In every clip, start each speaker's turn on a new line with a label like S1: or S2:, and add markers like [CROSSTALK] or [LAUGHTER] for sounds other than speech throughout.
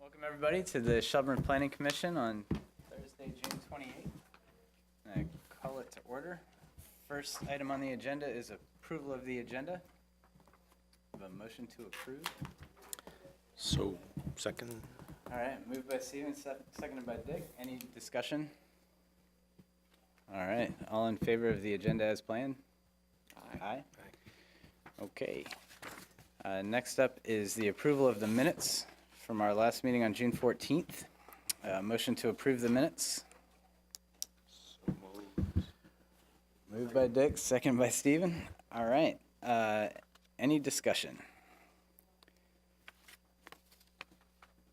S1: Welcome, everybody, to the Shelburne Planning Commission on Thursday, June 28th. And I call it to order. First item on the agenda is approval of the agenda. Have a motion to approve.
S2: So, second,
S1: All right, moved by Steven, se- seconded by Dick. Any discussion? All right, all in favor of the agenda as planned? Aye. Okay. Uh, Next up is the approval of the minutes from our last meeting on June 14th. Uh, Motion to approve the minutes. Moved by Dick, second by Steven. All right. uh, Any discussion?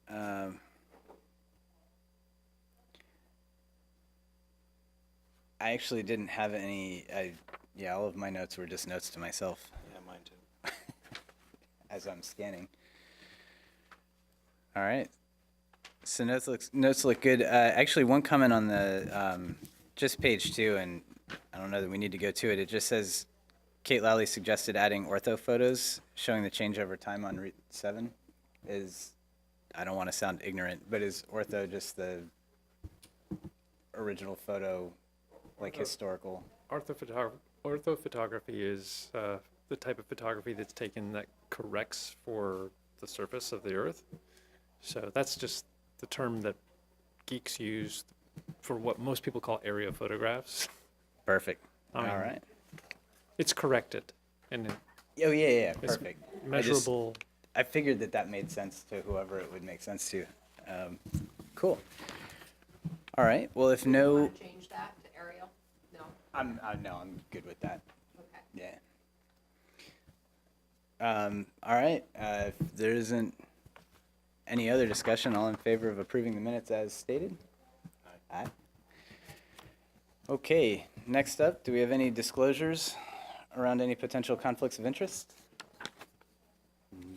S1: Um, I actually didn't have any, I, yeah, all of my notes were just notes to myself
S2: yeah, mine too.
S1: as I'm scanning. All right. So notes looks notes look good. Uh, actually, one comment on the um, just page two, and I don't know that we need to go to it. It just says Kate Lally suggested adding ortho photos showing the change over time on Route Seven. Is I don't want to sound ignorant, but is ortho just the original photo, like
S3: Uh,
S1: historical?
S3: Orthophotog- Orthophotography is uh, the type of photography that's taken that corrects for the surface of the earth. So that's just the term that geeks use for what most people call area photographs. [LAUGHS]
S1: Perfect.
S3: I mean,
S1: All right.
S3: It's corrected and it-
S1: Oh yeah, yeah, yeah, perfect. I just-
S3: measurable.
S1: I figured that that made sense to whoever it would make sense to. Um, cool. All right. Well, if no,
S4: Want to change that to aerial? No?
S1: I'm I, no, I'm good with that.
S4: Okay. [LAUGHS]
S1: Yeah. Um, all right. Uh, if there isn't any other discussion, all in favor of approving the minutes as stated? Aye. Okay. Next up, do we have any disclosures around any potential conflicts of interest?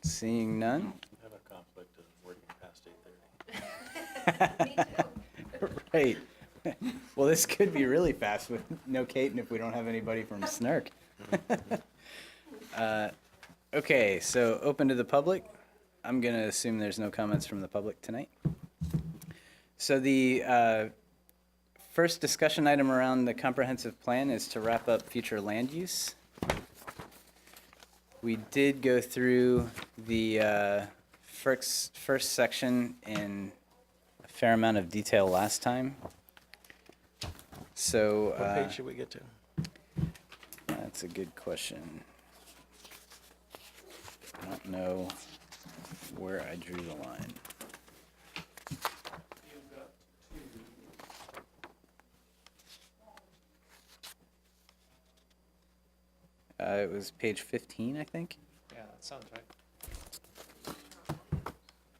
S1: Seeing none. [LAUGHS]
S2: I have a conflict of working past eight thirty.
S4: [LAUGHS] Me too.
S1: Right. [LAUGHS] Well, this could be really fast with no Kate and if we don't have anybody from Snark. Uh, Okay, so open to the public. I'm going to assume there's no comments from the public tonight. So the uh, first discussion item around the comprehensive plan is to wrap up future land use. We did go through the uh, first, first section in a fair amount of detail last time. So.
S2: What
S1: uh,
S2: page should we get to?
S1: that's a good question. I don't know where I drew the line. Uh, it was page fifteen, I think.
S3: Yeah, that sounds right.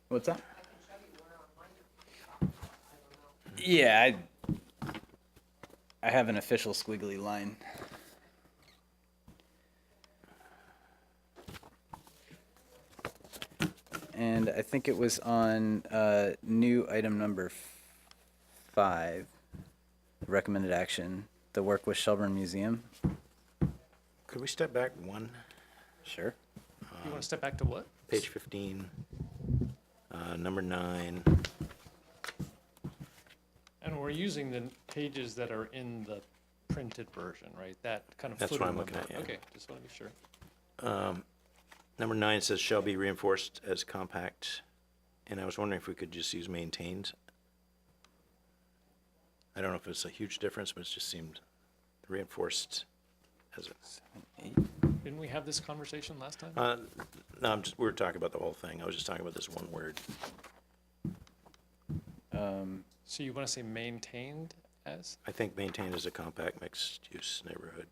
S1: What's that? Yeah, I, I have an official squiggly line. And I think it was on uh, new item number f- five, recommended action, the work with Shelburne Museum.
S2: Could we step back one?
S1: Sure.
S2: uh,
S3: You want to step back to what?
S2: Page fifteen, uh, number nine.
S3: And we're using the pages that are in the printed version, right? That kind of.
S2: That's what
S3: footer
S2: I'm looking
S3: number.
S2: at, yeah.
S3: Okay, just want to be sure.
S2: Number nine says shall be reinforced as compact, and I was wondering if we could just use maintained. I don't know if it's a huge difference, but it just seemed reinforced as a
S3: Didn't we have this conversation last time?
S2: Uh, No, I'm just, we were talking about the whole thing. I was just talking about this one word.
S3: So you want to say maintained as?
S2: I think maintained as a compact mixed-use neighborhood.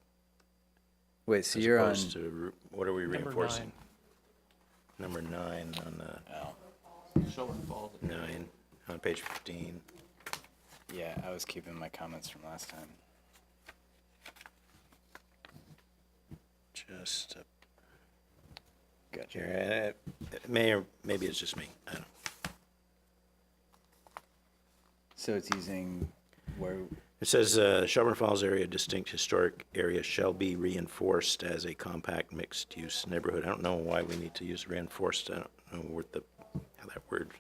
S1: Wait, so
S2: As
S1: you're on.
S2: opposed to, re- what are we
S3: Number
S2: reinforcing?
S3: nine.
S2: Number nine on the,
S1: Oh,
S2: nine, on page 15.
S1: yeah, I was keeping my comments from last time.
S2: Just up
S1: Gotcha.
S2: here. And it- uh, It may, or maybe it's just me. I don't,
S1: So it's using where,
S2: it says, uh, Shelburne Falls area distinct historic area shall be reinforced as a compact mixed-use neighborhood. I don't know why we need to use reinforced. I don't know what the, how that word